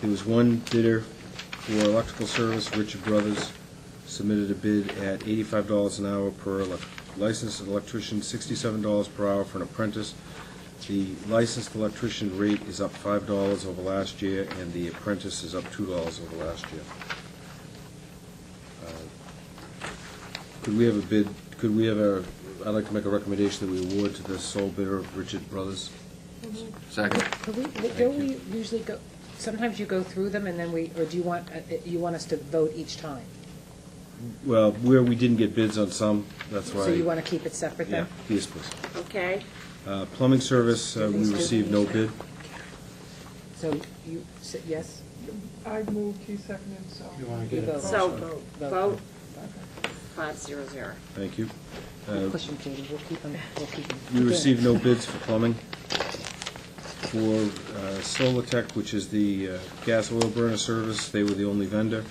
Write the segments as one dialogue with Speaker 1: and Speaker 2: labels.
Speaker 1: There was one bidder for electrical service, Richard Brothers, submitted a bid at eighty-five dollars an hour per elec- licensed electrician, sixty-seven dollars per hour for an apprentice. The licensed electrician rate is up five dollars over last year, and the apprentice is up two dollars over last year. Uh, Could we have a bid, could we have a, I'd like to make a recommendation that we award to the sole bidder, Richard Brothers.
Speaker 2: Second.
Speaker 3: Could we, don't we usually go, sometimes you go through them and then we, or do you want, uh, you want us to vote each time?
Speaker 1: Well, where we didn't get bids on some, that's why.
Speaker 3: So you want to keep it separate
Speaker 1: Yeah,
Speaker 3: then?
Speaker 1: yes, please.
Speaker 4: Okay,
Speaker 1: Uh, Plumbing service, uh, we received no bid.
Speaker 3: So you, s- yes?
Speaker 5: I moved, he seconded, so.
Speaker 6: You want to
Speaker 3: You
Speaker 6: get
Speaker 3: vote.
Speaker 6: it?
Speaker 4: so
Speaker 3: Vote.
Speaker 4: vote five zero zero.
Speaker 1: Thank you.
Speaker 3: Good question, Katie, we'll keep them, we'll keep them.
Speaker 1: We Uh, received no bids for plumbing. For uh, Solar Tech, which is the uh, gas oil burner service, they were the only vendor.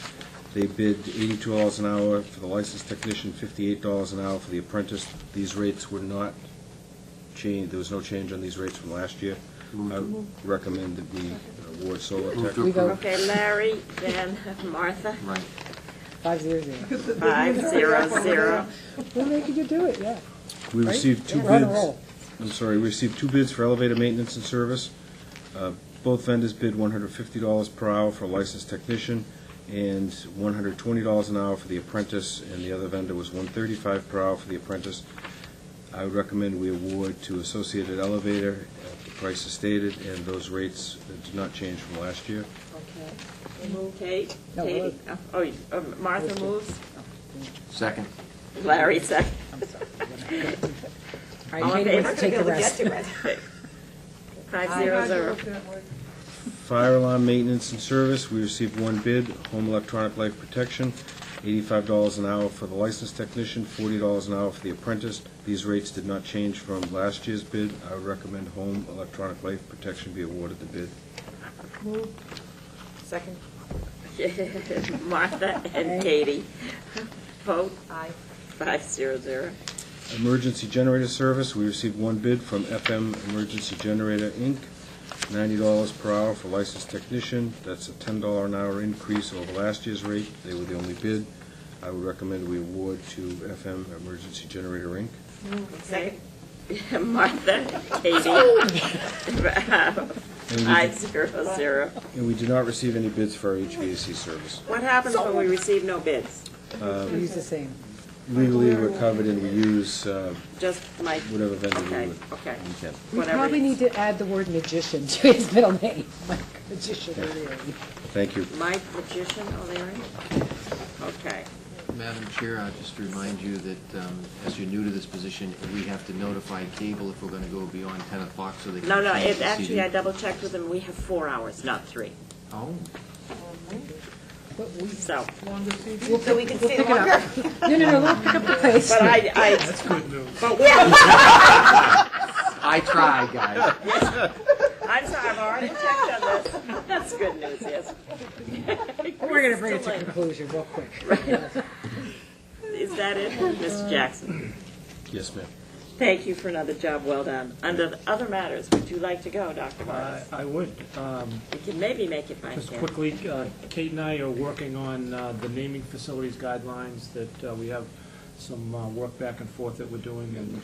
Speaker 1: They bid eighty-two dollars an hour for the licensed technician, fifty-eight dollars an hour for the apprentice. These rates were not changed, there was no change on these rates from last year. I recommend that we award Solar
Speaker 2: Move
Speaker 1: Tech.
Speaker 2: to
Speaker 3: We vote.
Speaker 2: approve.
Speaker 4: Okay, Larry, then Martha,
Speaker 2: Right.
Speaker 3: Five zero zero.
Speaker 4: five zero zero.
Speaker 3: We're making you do it, yeah.
Speaker 1: We
Speaker 3: Right?
Speaker 1: received two
Speaker 3: We're on a
Speaker 1: bids.
Speaker 3: roll.
Speaker 1: I'm sorry, we received two bids for elevator maintenance and service. Uh, Both vendors bid $150 per hour for a licensed technician and $120 an hour for the apprentice, and the other vendor was $135 per hour for the apprentice. I would recommend we award to Associated Elevator at the price as stated, and those rates did not change from last year.
Speaker 4: Okay. Kate,
Speaker 3: No,
Speaker 4: Katie, oh, you- uh, Martha
Speaker 3: Let's do-
Speaker 4: moves,
Speaker 2: Second.
Speaker 4: Larry second.
Speaker 3: I'm sorry. All
Speaker 4: All
Speaker 3: right,
Speaker 4: in
Speaker 3: Katie wants
Speaker 4: favor?
Speaker 3: to take the rest.
Speaker 4: Five zero zero.
Speaker 5: I got it that way.
Speaker 1: Fire alarm maintenance and service, we received one bid, home electronic life protection, eighty-five dollars an hour for the licensed technician, forty dollars an hour for the apprentice. These rates did not change from last year's bid. I would recommend home electronic life protection be awarded the bid.
Speaker 4: Second. Martha and Katie, vote. Aye. Five zero zero.
Speaker 1: Emergency generator service, we received one bid from FM Emergency Generator, Inc., ninety dollars per hour for licensed technician. That's a ten dollar an hour increase over last year's rate. They were the only bid. I would recommend we award to FM Emergency Generator, Inc.
Speaker 4: Second. Martha,
Speaker 3: Oh.
Speaker 4: Katie,
Speaker 1: And we
Speaker 4: five zero zero.
Speaker 1: And we do not receive any bids for our HVAC service.
Speaker 4: What happens when we receive no bids?
Speaker 3: We Use the same.
Speaker 1: Legally, we're covered and we use uh,
Speaker 4: Just like,
Speaker 1: whatever vendor we
Speaker 4: okay,
Speaker 1: would.
Speaker 4: okay,
Speaker 1: we can.
Speaker 3: We
Speaker 4: Whatever
Speaker 3: probably
Speaker 4: it
Speaker 3: need to add the word magician to his middle name, like magician O'Leary.
Speaker 1: Thank you.
Speaker 4: Mike Magician oh, O'Leary? Okay,
Speaker 2: Madam Chair, I'll just remind you that um, as you're new to this position, we have to notify cable if we're going to go beyond 10 o'clock so they can.
Speaker 4: no, no,
Speaker 2: change
Speaker 4: it,
Speaker 2: the
Speaker 4: actually,
Speaker 2: CD.
Speaker 4: I double checked with him, we have four hours, not three,
Speaker 2: Oh,
Speaker 3: But we-
Speaker 4: so.
Speaker 5: Longer CD.
Speaker 4: So we can
Speaker 3: Pick it up. No, no, no, we'll pick up the pace.
Speaker 4: But I, I,
Speaker 6: Good news.
Speaker 4: but we,
Speaker 2: I tried, guys.
Speaker 4: I'm sorry, I've already checked on this, that's good news, yes.
Speaker 3: We're going to bring it to conclusion real quick.
Speaker 4: Is that it, Mr. Jackson?
Speaker 1: Yes, ma'am.
Speaker 4: Thank you for another job well done. Under the other matters, would you like to go, Dr.
Speaker 6: I
Speaker 4: Morris?
Speaker 6: I would, um,
Speaker 4: You can maybe make it by
Speaker 6: just
Speaker 4: ten.
Speaker 6: quickly, uh, Kate and I are working on uh, the naming facilities guidelines that uh, we have some uh, work back and forth that we're doing, and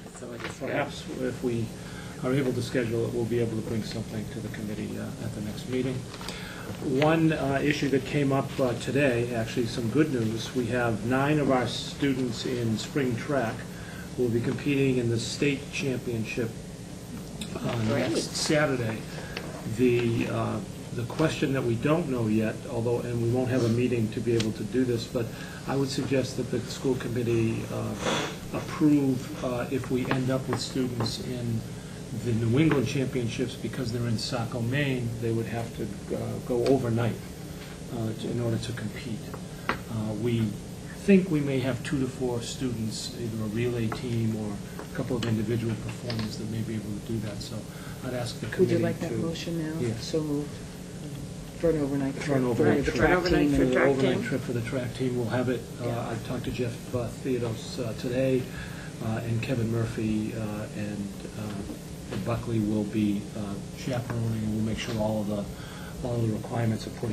Speaker 6: perhaps if we are able to schedule it, we'll be able to bring something to the committee uh, at the next meeting. One uh, issue that came up uh, today, actually some good news, we have nine of our students in spring track who will be competing in the state championship uh, next Saturday. The, uh, the question that we don't know yet, although, and we won't have a meeting to be able to do this, but I would suggest that the school committee uh, approve uh, if we end up with students in the New England Championships, because they're in Saco, Maine, they would have to uh, go overnight uh, to- in order to compete. Uh, We think we may have two to four students, either a relay team or a couple of individual performers that may be able to do that, so I'd ask the
Speaker 3: Would
Speaker 6: committee
Speaker 3: you
Speaker 6: to...
Speaker 3: like that motion now?
Speaker 6: Yeah.
Speaker 3: So moved. For an overnight trip.
Speaker 6: For an overnight
Speaker 3: the
Speaker 6: trip.
Speaker 3: track
Speaker 4: For an overnight
Speaker 3: team
Speaker 4: trip.
Speaker 3: and-
Speaker 4: track
Speaker 6: Overnight
Speaker 4: team?
Speaker 6: trip for the track team, we'll have it, uh, I talked to Jeff uh, Theodos uh, today, uh, and Kevin Murphy uh, and uh, Buckley will be uh, chaperoning, and we'll make sure all of the, all of the requirements are put in